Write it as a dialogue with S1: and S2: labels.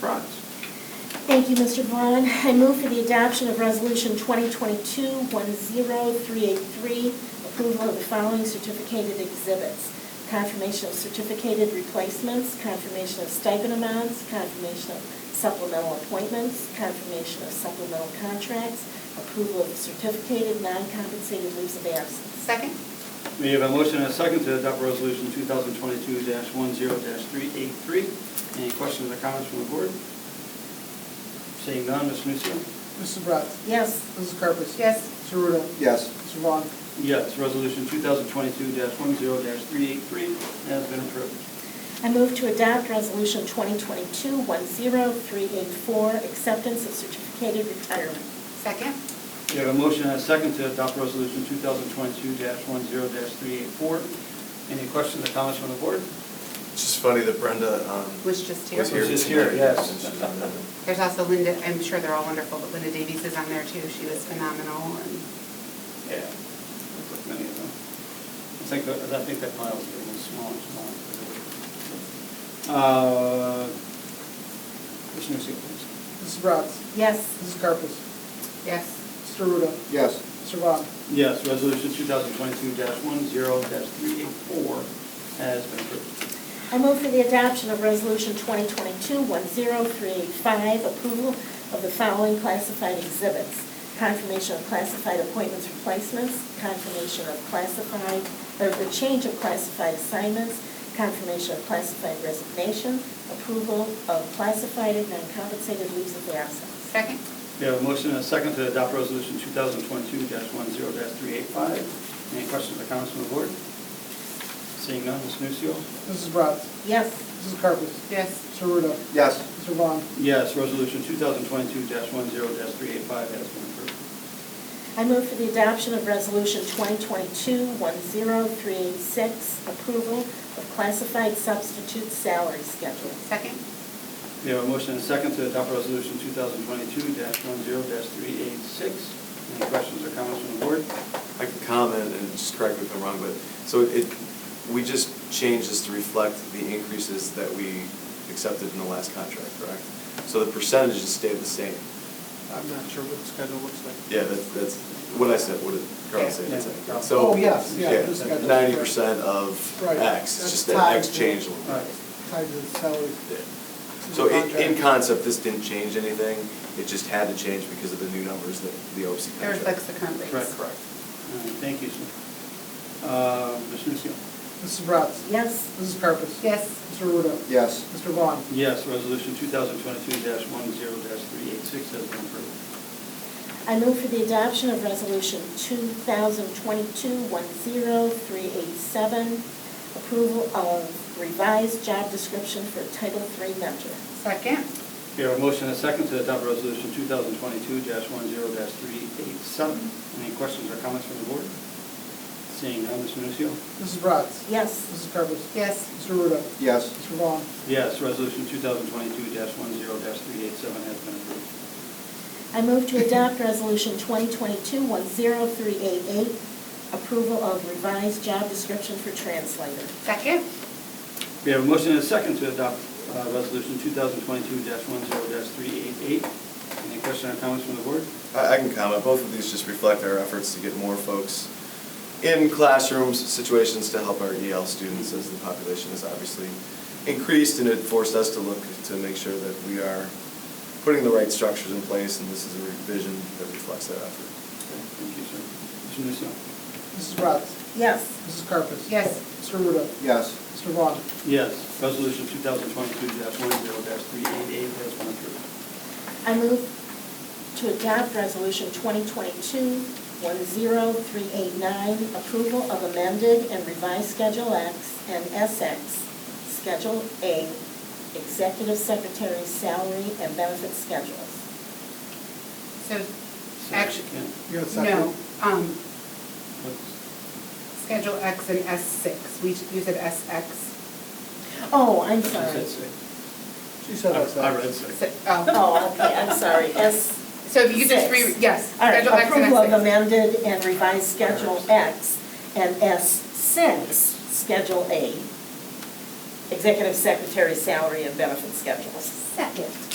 S1: Thank you, Mr. Braun. I move for the adoption of Resolution 2022-10383, approval of the following certificated exhibits: confirmation of certificated replacements, confirmation of stipend amounts, confirmation of supplemental appointments, confirmation of supplemental contracts, approval of certificated non-compensated leaves of absence.
S2: Second?
S3: We have a motion and a second to adopt resolution 2022-10-383. Any questions or comments from the board? Seeing none, Mr. Nusio.
S4: Mrs. Bratz.
S1: Yes.
S4: Mrs. Carpus.
S2: Yes.
S4: Mr. Ruda.
S5: yes,
S4: Mr. Vaughn.
S3: Yes, resolution 2022-10-383 has been approved.
S1: I move to adopt Resolution 2022-10384, acceptance of certificated retirement.
S2: Second?
S3: We have a motion and a second to adopt resolution 2022-10-384. Any questions or comments from the board?
S6: It's just funny that Brenda um,
S2: Was just here.
S6: was here.
S3: Was just here,
S6: tonight,
S3: yes.
S6: and she's on the-
S2: There's also Linda, I'm sure they're all wonderful, but Linda Davies is on there too. She was phenomenal and,
S3: Yeah. Looks like many of them. I think, that- I think that pile's getting smaller and smaller. Uh, Commissioner Segal, please.
S4: Mrs. Bratz.
S1: Yes.
S4: Mrs. Carpus.
S2: yes.
S4: Mr. Ruda.
S5: yes,
S4: Mr. Vaughn.
S3: Yes, resolution 2022-10-384 has been approved.
S1: I move for the adoption of Resolution 2022-10385, approval of the following classified exhibits: confirmation of classified appointments replacements, confirmation of classified, or the change of classified assignments, confirmation of classified resignation, approval of classified and non-compensated leaves of absence.
S2: Second?
S3: We have a motion and a second to adopt resolution 2022-10-385. Any questions or comments from the board? Seeing none, Ms. Nusio.
S4: Mrs. Bratz.
S1: Yes.
S4: Mrs. Carpus.
S2: Yes.
S4: Mr. Ruda.
S5: yes.
S4: Mr. Vaughn.
S3: Yes, resolution 2022-10-385 has been approved.
S1: I move for the adoption of Resolution 2022-10386, approval of classified substitute salary schedule.
S2: Second?
S3: We have a motion and a second to adopt resolution 2022-10-386. Any questions or comments from the board?
S6: I can comment and just correct me if I'm wrong, but, so it, we just changed this to reflect the increases that we accepted in the last contract, correct? So the percentages stayed the same.
S4: I'm not sure what the schedule looks like.
S6: Yeah, that's, that's what I said, what did Carl say? That's it.
S3: Yeah.
S6: So-
S4: Oh, yes, yeah, this guy does.
S6: Ninety percent of
S4: Right.
S6: X, it's
S4: That's
S6: just that
S4: tied
S6: X
S4: to-
S6: changed a little
S3: All
S6: bit.
S3: right.
S4: Tied to the salary.
S6: Yeah. So in, in
S4: Contract.
S6: concept, this didn't change anything, it just had to change because of the new numbers that the OC
S2: It
S6: contract.
S2: reflects the current rates.
S3: Right.
S6: Correct.
S3: All right, Thank you, sir. Uh, Mr. Nusio.
S4: Mrs. Bratz.
S1: Yes.
S4: Mrs. Carpus.
S2: Yes.
S4: Mr. Ruda.
S5: Yes.
S4: Mr. Vaughn.
S3: Yes, resolution 2022-10-386 has been approved.
S1: I move for the adoption of Resolution 2022-10387, approval of revised job description for Title III mentor.
S2: Second?
S3: We have a motion and a second to adopt resolution 2022-10-387. Any questions or comments from the board? Seeing none, Mr. Nusio.
S4: Mrs. Bratz.
S1: Yes.
S4: Mrs. Carpus.
S2: Yes.
S4: Mr. Ruda.
S5: Yes.
S4: Mr. Vaughn.
S3: Yes, resolution 2022-10-387 has been approved.
S1: I move to adopt Resolution 2022-10388, approval of revised job description for translator.
S2: Second?
S3: We have a motion and a second to adopt uh, Resolution 2022-10-388. Any questions or comments from the board?
S6: I, I can comment, both of these just reflect our efforts to get more folks in classrooms, situations to help our EL students as the population has obviously increased, and it forced us to look to make sure that we are putting the right structures in place, and this is a revision that reflects that effort.
S3: Thank you, sir. Mr. Nusio.
S4: Mrs. Bratz.
S1: Yes.
S4: Mrs. Carpus.
S2: Yes.
S4: Mr. Ruda.
S5: Yes.
S4: Mr. Vaughn.
S3: Yes, Resolution 2022-10-388 has been approved.
S1: I move to adopt Resolution 2022-10389, approval of amended and revised Schedule X and SX, Schedule A, Executive Secretary Salary and Benefit Schedules.
S2: So, actually,
S3: Yeah.
S4: You got a second?
S2: no. Um,
S3: What's-
S2: Schedule X and S6. We you said SX.
S1: Oh, I'm
S3: I said
S1: sorry.
S3: six.
S4: She said I said.
S3: I read six.
S2: Si- Oh.
S1: Oh, okay, I'm sorry, S.
S2: So if you could just re,
S1: six.
S2: yes.
S1: All right,
S2: Schedule X and
S1: approval of
S2: S6.
S1: amended and revised Schedule X and S6, Schedule A, Executive Secretary Salary and Benefit Schedules.
S2: Second.